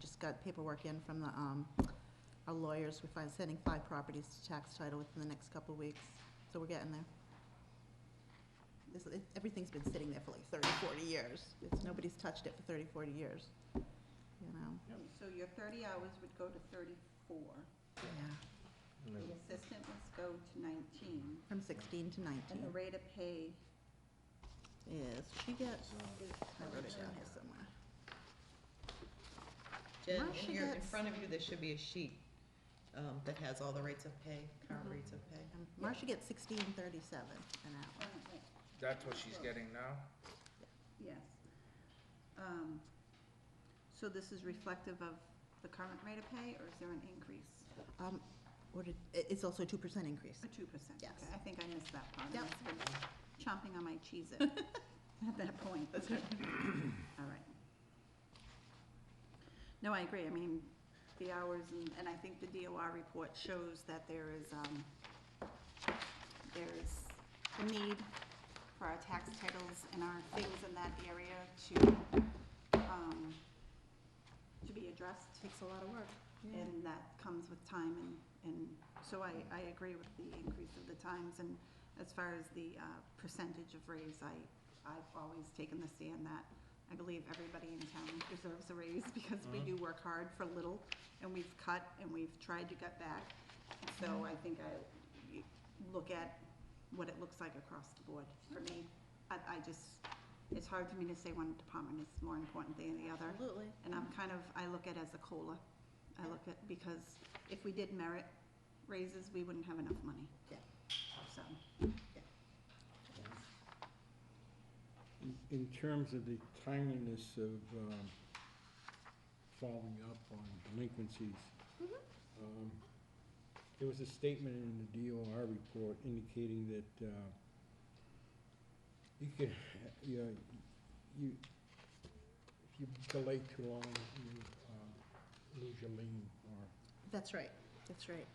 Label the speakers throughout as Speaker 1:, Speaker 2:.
Speaker 1: just got paperwork in from the, um, our lawyers. We're fin- sending five properties to tax title within the next couple of weeks, so we're getting there. This, it- everything's been sitting there for like 30, 40 years. It's, nobody's touched it for 30, 40 years, you know?
Speaker 2: Yep.
Speaker 3: So your thirty hours would go to thirty-four,
Speaker 1: Yeah.
Speaker 2: And
Speaker 3: the
Speaker 2: then-
Speaker 1: Mm-hmm.
Speaker 3: assistant must go to nineteen,
Speaker 1: From sixteen to
Speaker 3: and the
Speaker 1: nineteen.
Speaker 3: rate of pay
Speaker 1: Yes, she gets,
Speaker 2: so-
Speaker 3: is.
Speaker 1: I wrote it down here somewhere.
Speaker 4: Jen,
Speaker 1: Why should
Speaker 4: in your, in
Speaker 1: that s-
Speaker 4: front of you, there should be a sheet, um, that has all the rates of pay, current
Speaker 3: Mhm.
Speaker 4: rates of pay.
Speaker 1: Um, Marcia gets sixteen thirty-seven an hour.
Speaker 3: Oh, wait,
Speaker 5: That's what she's getting now?
Speaker 3: Yes. Um, So this is reflective of the current rate of pay, or is there an increase?
Speaker 1: Um, what did, i- it's also a two percent increase.
Speaker 3: A two percent?
Speaker 1: Yes.
Speaker 3: I think I missed that part. I
Speaker 1: Yep.
Speaker 3: must have been Chomping on my cheese at that point. That's right. All right. No, I agree. I mean, the hours, and, and I think the DOR report shows that there is, um, there is a need for our tax titles and our things in that area to, um, to be addressed.
Speaker 1: Takes a lot of work.
Speaker 3: And that comes with time and, and so I, I agree with the increase of the times and as far as the uh, percentage of raise, I, I've always taken the stand that I believe everybody in town deserves a raise because we do work hard for little and we've cut and we've tried to cut back. So
Speaker 1: Mm-hmm.
Speaker 3: I think I you look at what it looks like across the board for me. I, I just, it's hard for me to say one department is more important than the other.
Speaker 1: Absolutely.
Speaker 3: And I'm kind of, I look at it as a COLA. I look at, because if we did merit raises, we wouldn't have enough money.
Speaker 1: Yeah.
Speaker 3: So,
Speaker 6: In- In terms of the timeliness of um, following up on delinquencies, um, there was a statement in the DOR report indicating that uh, you could, ha- you, know, you, if you delay too long, you uh, lose your lien or
Speaker 1: That's right, that's right.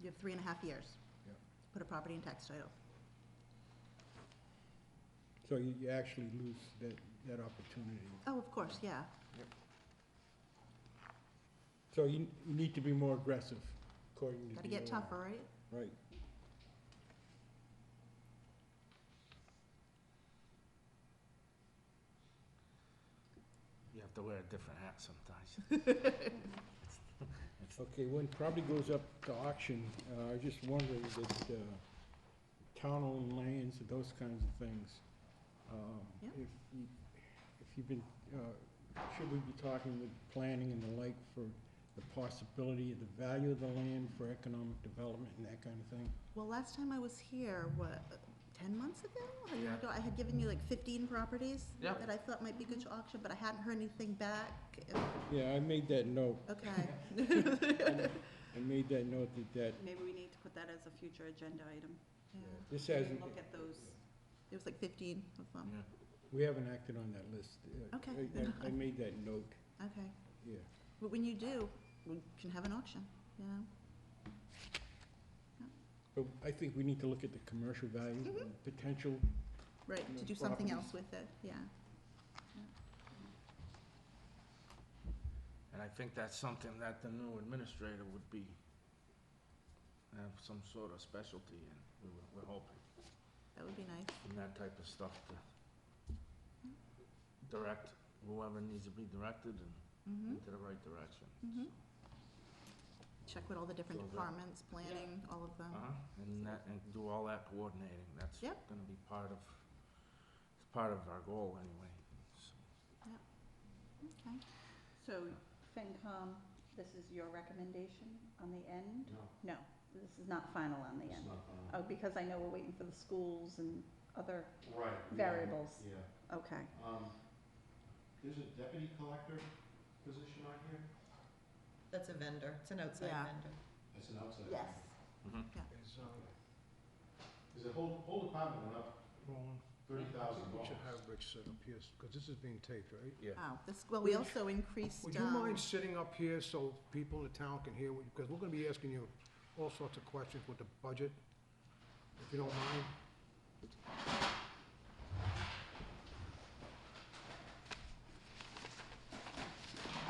Speaker 1: You have three and a half years.
Speaker 6: Yeah.
Speaker 1: to Put a property in tax title.
Speaker 6: So you, you actually lose that, that opportunity.
Speaker 1: Oh, of course, yeah.
Speaker 6: So you, you need to be more aggressive, according to
Speaker 1: Gotta get
Speaker 6: DOR.
Speaker 1: tougher, right?
Speaker 6: Right.
Speaker 5: You have to wear a different hat sometimes.
Speaker 6: Okay, when property goes up to auction, uh, I was just wondering that, uh, town-owned lands and those kinds of things, um,
Speaker 1: Yeah.
Speaker 6: if you, if you've been, uh, should we be talking with planning and the like for the possibility of the value of the land for economic development and that kind of thing?
Speaker 1: Well, last time I was here, what, ten months ago? A year
Speaker 5: Yeah.
Speaker 1: ago, I had given you like fifteen properties
Speaker 5: Yeah.
Speaker 1: that I thought might be good to auction, but I hadn't heard anything back.
Speaker 6: Yeah, I made that note,
Speaker 1: Okay.
Speaker 6: I made that note that that,
Speaker 3: maybe we need to put that as a future agenda item.
Speaker 1: Yeah.
Speaker 6: this
Speaker 3: Maybe
Speaker 6: hasn't,
Speaker 3: Look at those.
Speaker 1: It was like fifteen of them.
Speaker 6: we haven't acted on that list. Uh,
Speaker 1: Okay,
Speaker 6: I- I-
Speaker 1: then I-
Speaker 6: I made that note,
Speaker 1: Okay,
Speaker 6: yeah.
Speaker 1: but when you do, we can have an auction, you know?
Speaker 6: But I think we need to look at the commercial value, and potential.
Speaker 1: Right, to
Speaker 6: Yeah,
Speaker 1: do something
Speaker 6: properties.
Speaker 1: else with it, yeah.
Speaker 5: And I think that's something that the new administrator would be, have some sort of specialty in, we were, we're hoping,
Speaker 1: That would be nice.
Speaker 5: and that type of stuff to direct whoever needs to be directed and
Speaker 1: Mm-hmm,
Speaker 5: into the right direction.
Speaker 1: mm-hmm. Check with all the different
Speaker 5: So that-
Speaker 1: departments, planning, all of them.
Speaker 5: Uh-huh, and that, and do all that coordinating, that's
Speaker 1: Oh. Yep.
Speaker 5: gonna be part of, it's part of our goal anyway, so.
Speaker 1: Okay.
Speaker 3: So FinCom, this is your recommendation on the end? No, this is not final on the end. Oh, because I know we're waiting for the schools and other
Speaker 7: Right. yeah,
Speaker 3: variables.
Speaker 7: Yeah,
Speaker 3: Okay.
Speaker 7: um, there's a deputy collector position on here,
Speaker 4: That's a vendor, it's an outside
Speaker 1: Yeah.
Speaker 4: vendor.
Speaker 7: that's an outside.
Speaker 1: Yes.
Speaker 5: Mhm.
Speaker 2: Is,
Speaker 7: Okay. Is the whole, whole department went up
Speaker 2: Roland,
Speaker 7: thirty thousand
Speaker 2: we
Speaker 7: dollars?
Speaker 2: should have Rich sit up here, because this is being taped, right?
Speaker 5: Yeah.
Speaker 1: Wow, this, well, we
Speaker 2: Would-
Speaker 1: also increased,
Speaker 2: Would you
Speaker 1: um,
Speaker 2: mind sitting up here so people in the town can hear, because we're gonna be asking you all sorts of questions with the budget, if you don't mind?